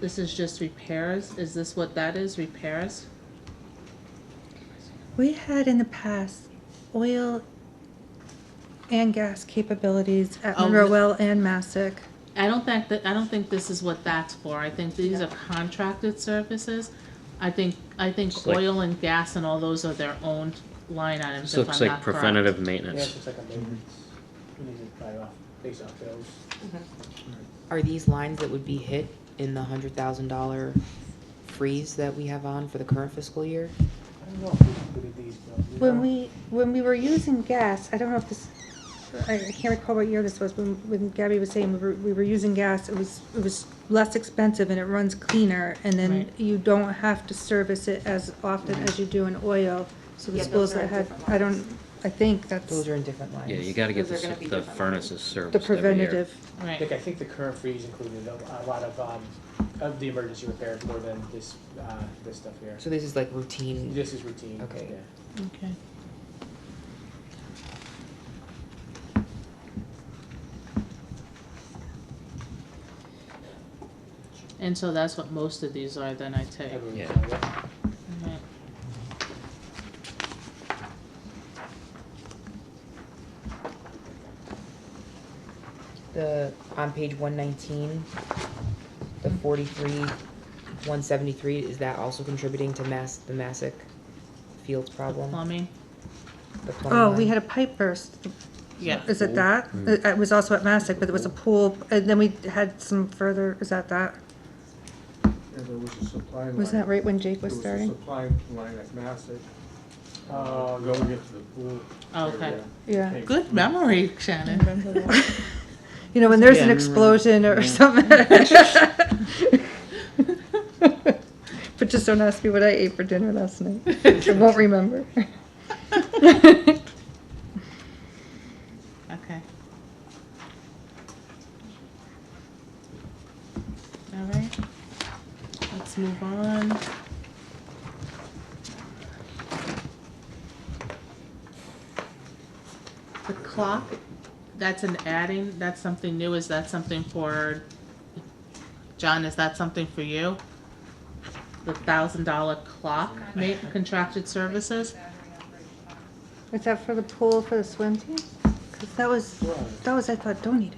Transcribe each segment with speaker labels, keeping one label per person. Speaker 1: This is just repairs? Is this what that is, repairs?
Speaker 2: We had in the past oil and gas capabilities at
Speaker 1: Oh,
Speaker 2: Monroe Well and Massac.
Speaker 1: I don't think that, I don't think this is what that's for. I think these are contracted services. I think, I think
Speaker 3: It's like-
Speaker 1: oil and gas and all those are their own line
Speaker 3: This
Speaker 1: items, if I'm not
Speaker 3: looks like
Speaker 1: correct.
Speaker 3: preventative
Speaker 4: Yeah, it
Speaker 3: maintenance.
Speaker 4: looks like a maintenance. We need to buy off, base off those.
Speaker 1: Mm-hmm.
Speaker 5: Are these lines that would be hit in the hundred thousand dollar freeze that we have on for the current fiscal year?
Speaker 4: I don't know if we included these, but. we
Speaker 2: When
Speaker 4: are-
Speaker 2: we, when we were using gas, I don't know if this, I I can't recall what year this was, when, when Gabby was saying we were, we were using gas, it was, it was less expensive and it runs cleaner, and then
Speaker 1: Right.
Speaker 2: you don't have to service it as often as you do in oil. So the
Speaker 6: Yeah,
Speaker 2: schools
Speaker 6: those are
Speaker 2: that had,
Speaker 6: different
Speaker 2: I don't, I think that's
Speaker 5: Those are in different lines.
Speaker 3: Yeah, you gotta get
Speaker 6: Those
Speaker 3: the,
Speaker 6: are gonna be
Speaker 3: the
Speaker 6: different
Speaker 3: furnaces
Speaker 2: the
Speaker 3: serviced every year.
Speaker 2: preventative.
Speaker 1: Right,
Speaker 4: Dick, I think the current freeze included a a lot of, um, of the emergency repairs more than this, uh, this stuff here.
Speaker 5: So this is like routine,
Speaker 4: This is routine.
Speaker 5: Okay.
Speaker 4: yeah.
Speaker 1: okay. And so that's what most of these are then, I take.
Speaker 4: I believe
Speaker 3: Yeah.
Speaker 4: so, yeah.
Speaker 1: Alright.
Speaker 5: the, on page one nineteen, the forty-three, one seventy-three, is that also contributing to mass, the Massic Fields problem?
Speaker 1: Plumbing?
Speaker 5: The plumbing
Speaker 2: Uh-huh. Oh, we
Speaker 5: line?
Speaker 2: had a pipe burst
Speaker 1: Yeah.
Speaker 2: Is it that? It it was also at Mastic, but it was a pool, and then we had some further, is that that?
Speaker 7: Yeah, there was a supply line.
Speaker 2: Was that right when Jake
Speaker 7: There
Speaker 2: was
Speaker 7: was a
Speaker 2: starting?
Speaker 7: supply line at Massac.
Speaker 4: Oh, no.
Speaker 7: Going into the pool.
Speaker 1: Okay.
Speaker 7: area.
Speaker 2: Yeah.
Speaker 7: Came
Speaker 1: Good
Speaker 7: through.
Speaker 1: memory, Shannon.
Speaker 2: You know, when there's an
Speaker 3: Yeah.
Speaker 2: explosion or something. But just don't ask me what I ate for dinner last night. I won't remember.
Speaker 1: Okay. All right, let's move on. The clock, that's an adding, that's something new, is that something for, John, is that something for you? The thousand dollar clock, ma- contracted services?
Speaker 2: Was that for the pool for the swim team? Because that was, that was, I thought, donated.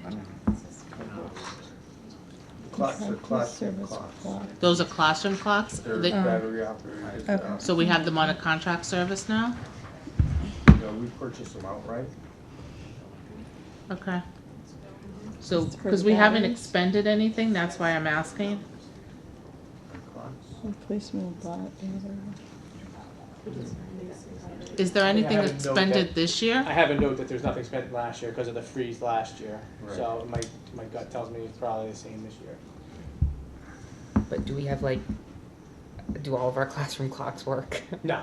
Speaker 7: Clocks are clocks and clocks.
Speaker 1: Those are classroom clocks?
Speaker 7: They're
Speaker 1: They-
Speaker 7: battery operated.
Speaker 2: Um, Okay.
Speaker 7: uh,
Speaker 1: So we have them on a contract service now?
Speaker 7: you know, We purchased them outright.
Speaker 1: Okay. So, because we haven't expended anything, that's why I'm asking.
Speaker 7: Clocks.
Speaker 8: Replacement bot,
Speaker 1: Is there anything
Speaker 4: I haven't noted
Speaker 1: expended
Speaker 4: that.
Speaker 1: this year?
Speaker 4: I have a note that there's nothing spent last year because of the freeze last year,
Speaker 7: Right.
Speaker 4: so my, my gut tells me it's probably the same this year.
Speaker 5: But do we have like, do all of our classroom clocks work?
Speaker 4: No,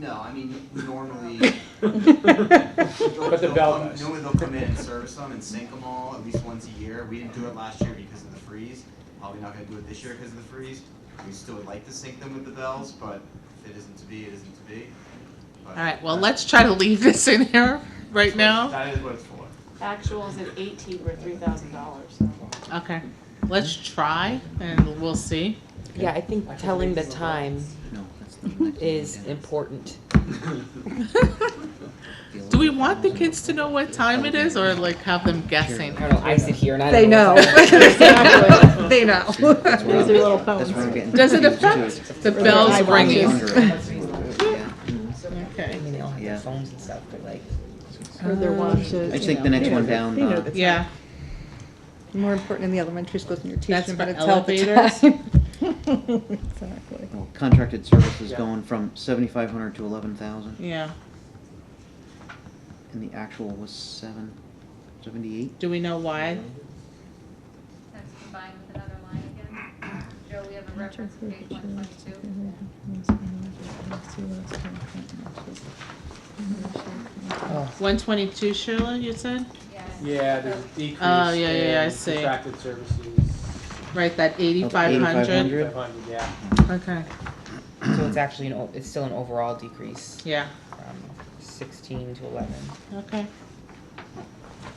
Speaker 9: No, I mean, normally. they'll-
Speaker 4: But the
Speaker 9: they'll
Speaker 4: bell
Speaker 9: come-
Speaker 4: does.
Speaker 9: Normally they'll come in and service them and sync them all at least once a year. We didn't do it last year because of the freeze. Probably not gonna do it this year because of the freeze. We still would like to sync them with the bells, but if it isn't to be, it isn't to be.
Speaker 1: All right, well, let's try to leave this in here right now.
Speaker 9: That is what it's for.
Speaker 6: Actuals at eighteen were three thousand dollars, so.
Speaker 1: Okay, let's try and we'll see.
Speaker 5: Yeah, I think
Speaker 4: I can
Speaker 5: telling
Speaker 4: read
Speaker 5: the
Speaker 4: some of
Speaker 5: time
Speaker 3: No, that's the
Speaker 5: is important.
Speaker 1: Do we want the kids to know what time it is or like have them guessing?
Speaker 5: I don't know, I sit here and I don't
Speaker 2: They know.
Speaker 5: know. what's going on.
Speaker 2: They know.
Speaker 8: These are little phones.
Speaker 1: Does it affect the bells ringing?
Speaker 5: I
Speaker 1: Okay,
Speaker 5: mean, they all have their
Speaker 3: Yeah.
Speaker 5: phones and stuff, but like,
Speaker 8: or their watches.
Speaker 3: Uh, I just
Speaker 8: you
Speaker 3: think the
Speaker 8: know.
Speaker 3: next
Speaker 8: They
Speaker 3: one
Speaker 8: know-
Speaker 3: down,
Speaker 8: They know
Speaker 3: uh,
Speaker 8: the time.
Speaker 1: yeah,
Speaker 2: More important in the elementary schools when you're
Speaker 1: That's
Speaker 2: teaching, but
Speaker 1: for
Speaker 2: it's all the
Speaker 1: elevators?
Speaker 2: time. Exactly.
Speaker 10: Contracted services
Speaker 4: Yeah.
Speaker 10: going from seventy-five hundred to eleven thousand,
Speaker 1: yeah.
Speaker 10: and the actual was seven, seventy-eight?
Speaker 1: Do we know why?
Speaker 11: That's combined with another line again. Joe, we have a reference to page one twenty-two.
Speaker 5: oh.
Speaker 1: One twenty-two, Sheila, you said?
Speaker 4: yeah, there's a decrease
Speaker 1: Oh, yeah, yeah, yeah, I
Speaker 4: in
Speaker 1: see.
Speaker 4: contracted services,
Speaker 1: Right, that eighty-five hundred?
Speaker 10: 8,500.
Speaker 4: five hundred, yeah.
Speaker 1: Okay,
Speaker 5: so it's actually an, o- it's still an overall decrease
Speaker 1: yeah,
Speaker 5: from sixteen to eleven.
Speaker 1: okay.